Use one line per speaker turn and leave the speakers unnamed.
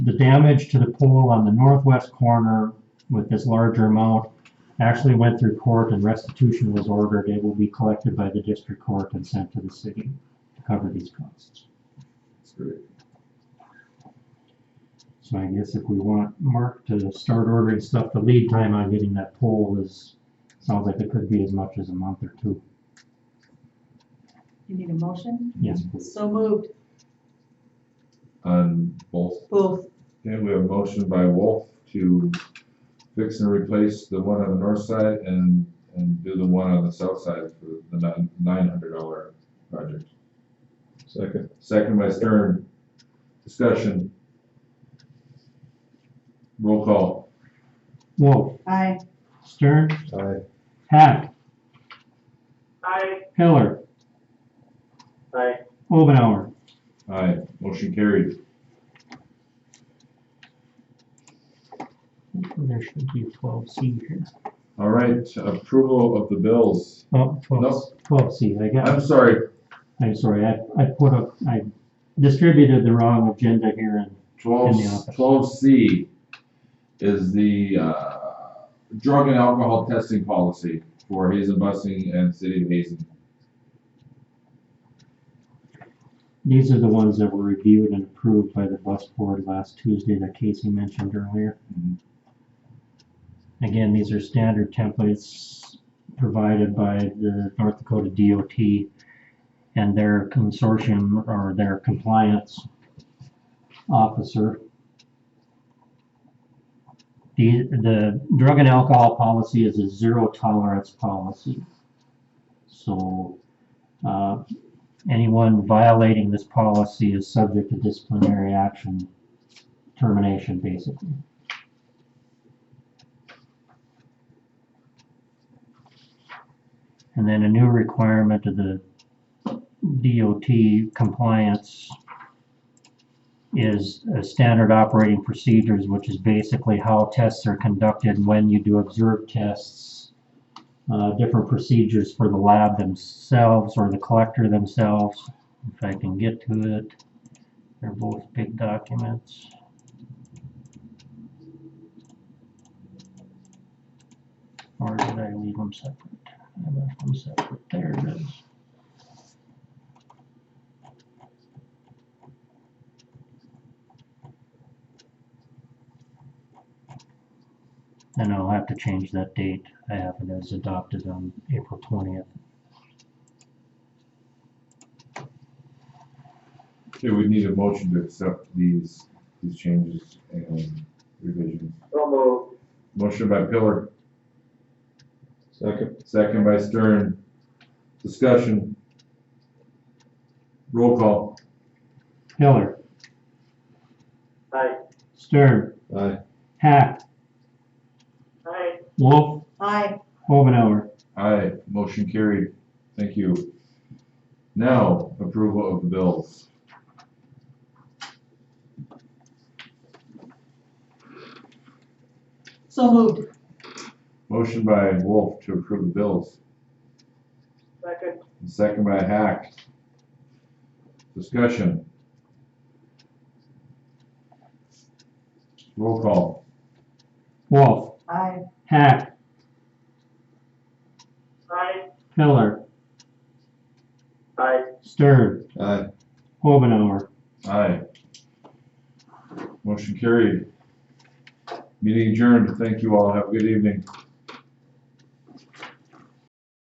the damage to the pole on the northwest corner with this larger amount actually went through court and restitution was ordered. It will be collected by the district court and sent to the city to cover these costs.
That's great.
So I guess if we want Mark to start ordering stuff, the lead time on getting that pole is, sounds like it could be as much as a month or two.
You need a motion?
Yes, please.
So moved,
On both,
both.
okay, we have a motion by Wolf to fix and replace the one on the north side and, and do the one on the south side for the nine, nine hundred dollar project. Second. Second by Stern, discussion. Roll call.
Wolf,
Aye.
Stern,
Aye.
Hack,
Aye.
Pillar,
Aye.
Obenauer.
Aye, motion carried.
There should be twelve C here.
All right, approval of the bills.
Oh,
No.
twelve, twelve C, I got it.
I'm sorry,
I'm sorry, I, I put up, I distributed the wrong agenda here and,
Twelve,
In the office.
twelve C is the, uh, drug and alcohol testing policy for Hazen Busing and City of Hazen.
these are the ones that were reviewed and approved by the bus board last Tuesday that Casey mentioned earlier.
Mhm.
Again, these are standard templates provided by the North Dakota DOT and their consortium or their compliance officer. The, the drug and alcohol policy is a zero tolerance policy. So, uh, anyone violating this policy is subject to disciplinary action, termination, basically. And then a new requirement of the DOT compliance is uh, standard operating procedures, which is basically how tests are conducted, when you do observe tests, uh, different procedures for the lab themselves or the collector themselves. If I can get to it, they're both big documents. Or did I leave them separate? I left them separate. There it is. And I'll have to change that date. I have it as adopted on April twentieth.
Okay, we need a motion to accept these, these changes and revisions.
So moved.
Motion by Pillar. Second. Second by Stern. Discussion. Roll call.
Pillar,
Aye.
Stern,
Aye.
Hack,
Aye.
Wolf,
Aye.
Omenauer.
Aye, motion carried. Thank you. Now, approval of the bills.
So moved.
Motion by Wolf to approve the bills.
Second.
And Second by Hack. Discussion. Roll call.
Wolf,
Aye.
Hack,
Aye.
Pillar,
Aye.
Stern,
Aye.
Omenauer.
Aye. Motion carried. Meeting adjourned. Thank you all. Have a good evening.